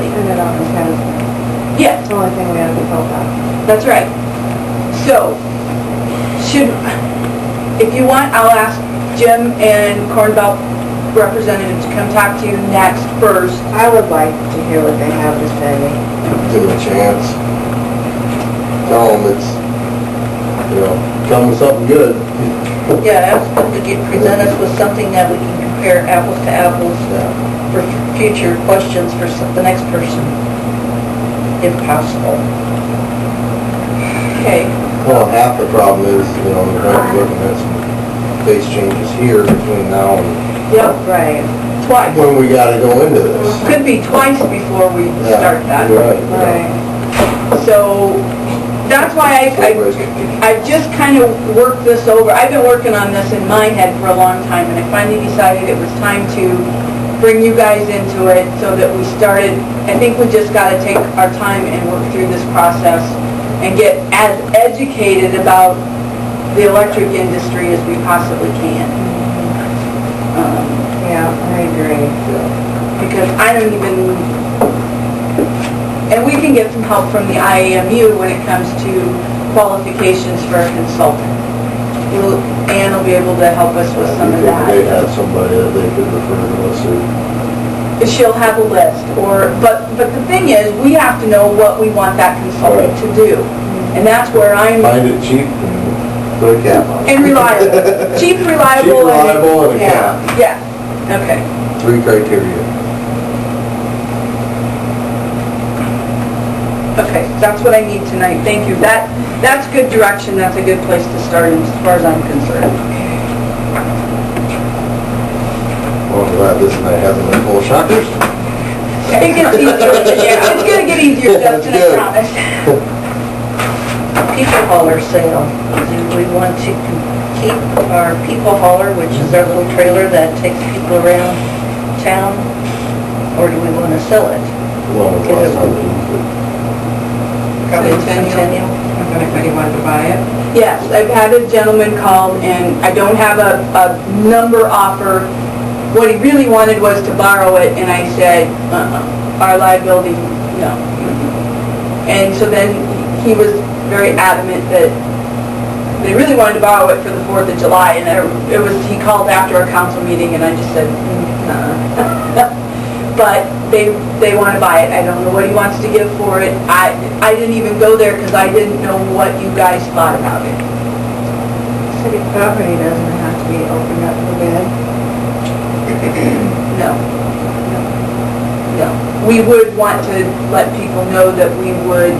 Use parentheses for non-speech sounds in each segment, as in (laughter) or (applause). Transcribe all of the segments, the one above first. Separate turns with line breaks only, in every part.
that out in town.
Yeah,
That's the only thing we have to talk about.
That's right. So, should, if you want, I'll ask Jim and Cornbelt representative to come talk to you next first.
I would like to hear what they have to say.
give them a chance. Tell them it's, you know, come with something good.
Yeah, ask them to get, present us with something that we can compare apples to apples
Yeah.
for future questions for some- the next person, if possible. Okay.
Well, half the problem is, you know, the are looking at some face changes here between now and
Yep,
Right,
twice.
when we gotta go into this.
Could be twice before we
Yeah,
start that.
Right. yeah.
right.
So, that's why I, I
Everybody's confused.
I've just kind of worked this over. I've been working on this in my head for a long time, and I finally decided it was time to bring you guys into it so that we started, I think we just got to take our time and work through this process and get as educated about the electric industry as we possibly can. Um,
Yeah, I agree.
Yeah.
Because I don't even, and we can get some help from the IAMU when it comes to qualifications for a consultant. We'll- Ann will be able to help us with some of
They
that.
have somebody that they could refer to us to.
She'll have a list, or, but, but the thing is, we have to know what we want that consultant to do. And that's where I'm,
Find it cheap and put a cap on it.
and reliable, cheap,
Cheap,
reliable, and,
reliable, and a
yeah.
cap.
yeah, okay.
(laughs) Three criteria.
Okay, that's what I need tonight, thank you. That, that's good direction, that's a good place to start as far as I'm concerned.
Well, I'm glad this night hasn't been full of shockers.
It gets easier, yeah, it's gonna get easier,
That's
Justin, I
good.
promise. People hauler sale, do we want to keep our people hauler, which is our little trailer that takes people around town, or do we want to sell it?
Well, the last time we used it.
If anybody wanted to buy it.
Yes, I've had a gentleman call and I don't have a, a number offer. What he really wanted was to borrow it and I said, uh-uh, our liability, no. And so then he was very adamant that they really wanted to borrow it for the Fourth of July and I- it was, he called after a council meeting and I just said, uh But they, they want to buy it. I don't know what he wants to give for it. I, I didn't even go there because I didn't know what you guys thought about it.
City property doesn't have to be opened up for bid.
No. No. We would want to let people know that we would,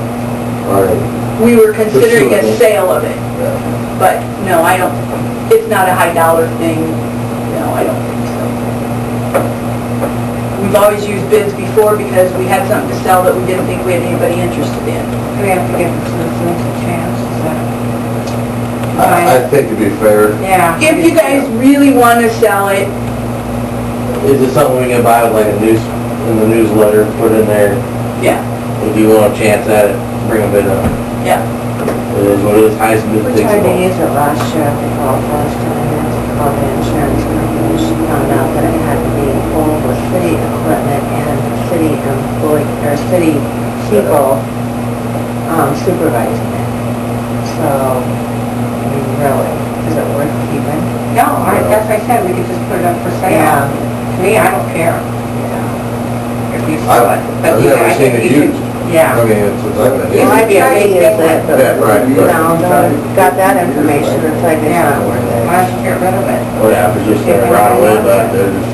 All right.
we were considering a
Pursuing it.
sale of it,
Yeah.
but no, I don't, it's not a high dollar thing. No, I don't think so. We've always used bids before because we had something to sell that we didn't think we had anybody interested in.
We have to give the citizens a chance, so.
I, I think to be fair,
Yeah.
If you guys really want to sell it,
Is it something we can buy with like a news, in the newsletter, put in there,
yeah,
if you want a chance at it, bring a bid up.
yeah,
It is what it is, highest bid
We
takes it
tried to
all.
use it last year, we called last time, and we called the insurance company, and she found out that it had to be all with city equipment and city employee, or city people um, supervising it. So, I mean, really, is it worth keeping?
No, I, that's what I said, we could just put it up for sale. To me, I don't care
Yeah.
if you sell it.
I've,
but
I've
you-
never
I
seen
think
it
you should-
used. I
Yeah.
mean, it's, I've
Well, I
been,
tried to use it, but,
Yeah, right,
you
right.
know, got that information, it's like it's
Yeah,
not worth it.
why don't you get rid of it?
What happens, just there right away, but they're just,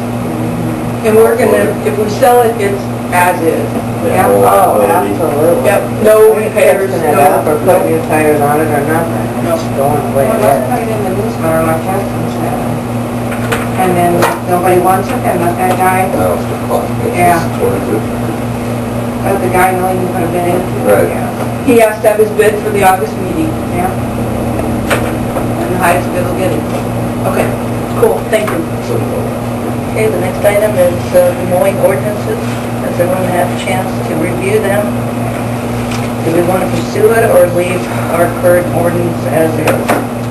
and we're gonna, if we sell it, it's as is.
they have
Yeah,
all that
oh,
quality.
absolutely.
Yep, no repairs,
Fixing it up or
no,
putting new tires on it or nothing,
No.
it's going away.
Well, let's put it in the newsletter like Justin said. And then if nobody wants it, then let that guy,
now it's the clock, it's
Yeah.
just towards
let the guy know you put a bid in.
Right.
Yeah.
he has to have his bid for the August meeting.
Yeah.
and the highest bid will get it. Okay, cool, thank you.
it.
Okay, the next item is uh, the mowing ordinances. Has everyone had a chance to review them? Do we want to pursue it or leave our current ordinance as is?